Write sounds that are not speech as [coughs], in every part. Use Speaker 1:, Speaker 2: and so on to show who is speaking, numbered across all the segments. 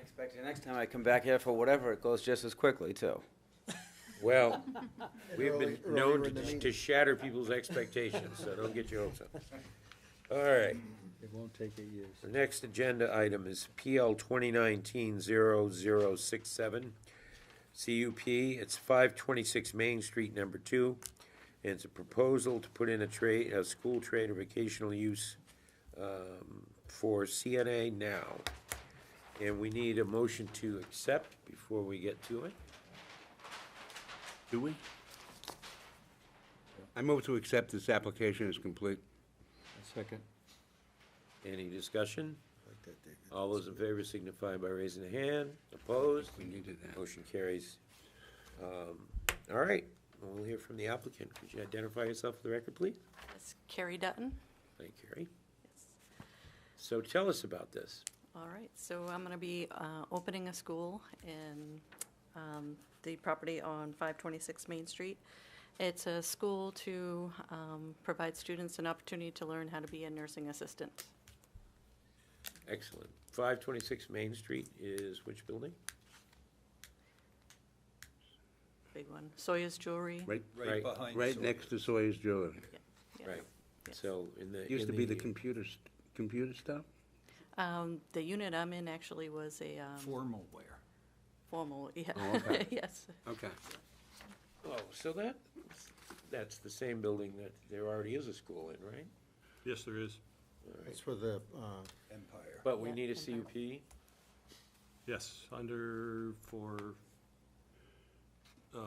Speaker 1: expect the next time I come back here for whatever, it goes just as quickly, too.
Speaker 2: [laughs]
Speaker 3: Well, we've been
Speaker 2: Early-
Speaker 3: known
Speaker 2: earlier in the
Speaker 3: to-
Speaker 2: meeting.
Speaker 3: to shatter people's expectations, so don't get your hopes up. All right,
Speaker 2: It won't take eight years.
Speaker 3: the next agenda item is PL 2019-0067, CUP. It's 526 Main Street, number two. And it's a proposal to put in a trade, a school trade or vocational use um, for CNA now. And we need a motion to accept before we get to it.
Speaker 4: Do we? I move to accept this application as complete.
Speaker 2: Second.
Speaker 3: Any discussion? All those in favor signify by raising a hand. Opposed?
Speaker 4: We needed that.
Speaker 3: Motion carries. Um, All right, we'll hear from the applicant. Could you identify yourself for the record, please?
Speaker 5: It's Carrie Dutton.
Speaker 3: Thank you, Carrie. So tell us about this.
Speaker 5: All right, so I'm going to be uh, opening a school in um, the property on 526 Main Street. It's a school to um, provide students an opportunity to learn how to be a nursing assistant.
Speaker 3: Excellent. 526 Main Street is which building?
Speaker 5: Big one. Sawyer's Jewelry.
Speaker 4: Right,
Speaker 3: Right.
Speaker 6: Right behind.
Speaker 4: right
Speaker 6: Sawyer.
Speaker 4: next to Sawyer's Jewelry.
Speaker 5: Yeah.
Speaker 3: Right. So in the.
Speaker 4: Used
Speaker 3: in
Speaker 4: to be the computer, st- computer stuff?
Speaker 5: Um, The unit I'm in actually was a um,
Speaker 6: Formal wear.
Speaker 5: formal, yeah.
Speaker 4: Oh, okay.
Speaker 5: [laughs] Yes,
Speaker 4: Okay.
Speaker 3: Oh, so that, that's the same building that there already is a school in, right?
Speaker 7: Yes, there is.
Speaker 2: It's for the, uh,
Speaker 6: Empire.
Speaker 3: But we
Speaker 5: Yeah,
Speaker 3: need a
Speaker 5: in
Speaker 3: CUP?
Speaker 5: fact.
Speaker 7: Yes, under, for, uh,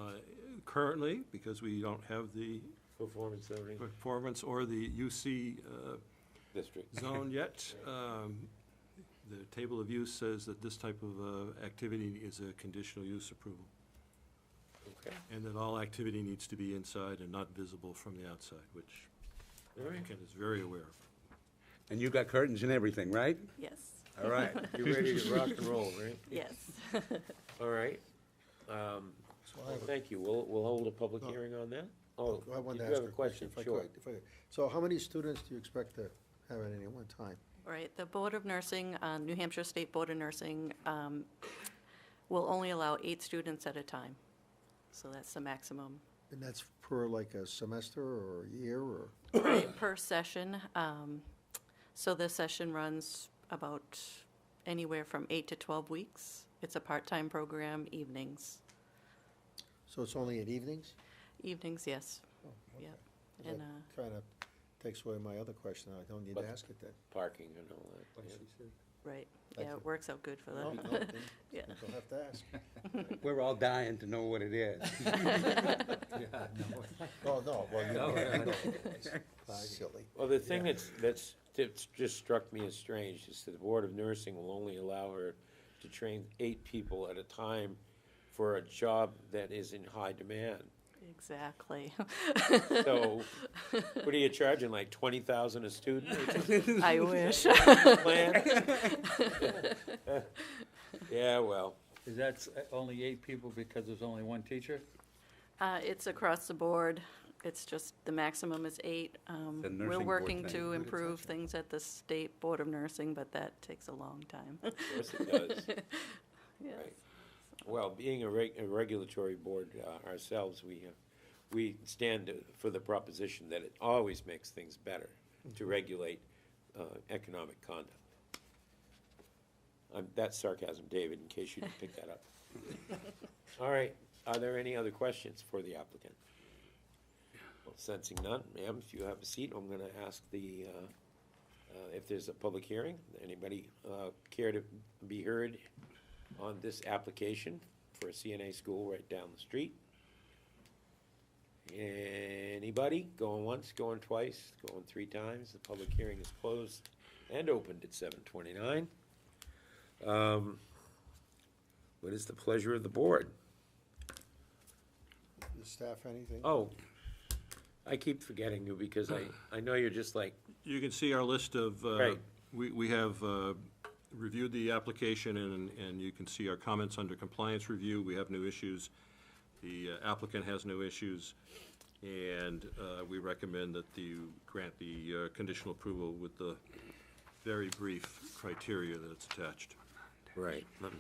Speaker 7: currently, because we don't have the
Speaker 3: Performance zoning
Speaker 7: performance or the UC uh,
Speaker 3: district.
Speaker 7: zone yet, um, the table of use says that this type of uh, activity is a conditional use approval,
Speaker 3: Okay,
Speaker 7: and that all activity needs to be inside and not visible from the outside, which
Speaker 3: all right.
Speaker 7: Ken is very aware of.
Speaker 4: And you got curtains and everything, right?
Speaker 5: yes,
Speaker 4: All [laughs] right.
Speaker 3: You're ready to rock and roll, right?
Speaker 5: yes.
Speaker 3: [laughs] All right. Um,
Speaker 2: so I
Speaker 3: well,
Speaker 2: have a-
Speaker 3: Thank you. We'll, we'll hold a public
Speaker 2: No.
Speaker 3: hearing on that. Oh,
Speaker 2: I wanted
Speaker 3: you
Speaker 2: to
Speaker 3: have
Speaker 2: ask
Speaker 3: a
Speaker 2: a
Speaker 3: question,
Speaker 2: if I
Speaker 3: sure.
Speaker 2: could, if I could. So how many students do you expect to have at any one time?
Speaker 5: Right, the Board of Nursing, uh, New Hampshire State Board of Nursing, um, will only allow eight students at a time. So that's the maximum.
Speaker 2: And that's per like a semester or a year or? [coughs]
Speaker 5: Right, per session, um, so the session runs about anywhere from eight to 12 weeks. It's a part-time program, evenings.
Speaker 2: So it's only at evenings?
Speaker 5: Evenings, yes,
Speaker 2: Oh,
Speaker 5: yeah.
Speaker 2: okay.
Speaker 5: And,
Speaker 2: That
Speaker 5: uh,
Speaker 2: Kind of takes away my other question. I don't need
Speaker 3: But-
Speaker 2: to ask it then.
Speaker 3: Parking and all that. yeah.
Speaker 5: right,
Speaker 2: Thank
Speaker 5: yeah,
Speaker 2: you.
Speaker 5: it works out good for
Speaker 2: No,
Speaker 5: them.
Speaker 2: no, then
Speaker 5: Yeah.
Speaker 2: You'll have
Speaker 3: [laughs]
Speaker 2: to ask.
Speaker 4: We're all dying to know what it is.
Speaker 2: Oh, no, well, you
Speaker 6: No,
Speaker 3: [laughs]
Speaker 2: silly.
Speaker 3: Well, the thing that's, that's, that's just struck me as strange is that the Board of Nursing will only allow her to train eight people at a time for a job that is in high demand.
Speaker 5: Exactly.
Speaker 2: [laughs]
Speaker 3: [laughs] So, what are you charging, like twenty thousand a student or something? [laughs]
Speaker 5: I wish.
Speaker 3: plan? [laughs] Yeah, well,
Speaker 8: Is that s- only eight people because there's only one teacher?
Speaker 5: Uh, It's across the board. It's just, the maximum is eight. Um,
Speaker 4: The nursing
Speaker 5: We're
Speaker 4: board
Speaker 5: working
Speaker 4: thing.
Speaker 5: to improve things at the State Board of Nursing, but that takes a long time. [laughs]
Speaker 3: of course it does.
Speaker 5: Yes.
Speaker 3: Right. Well, being a reg- a regulatory board uh, ourselves, we, uh, we stand for the proposition that it always makes things better to regulate uh, economic conduct. Um, That's sarcasm, David, in case you didn't pick that up. All right, are there any other questions for the applicant? Well, Sensing none, ma'am, if you have a seat, I'm gonna ask the, uh, uh, if there's a public hearing, anybody uh, care to be heard on this application for a CNA school right down the street. Anybody? Going once, going twice, going three times. The public hearing is closed and opened at seven twenty-nine. Um, What is the pleasure of the board?
Speaker 2: The staff, anything?
Speaker 3: Oh, I keep forgetting you because I, I know you're just like,
Speaker 7: You can see our list of, uh,
Speaker 3: Right.
Speaker 7: we we have uh, reviewed the application, and and you can see our comments under compliance review. We have no issues. The uh, applicant has no issues, and uh, we recommend that you grant the uh, conditional approval with the very brief criteria that it's attached.
Speaker 3: right, let me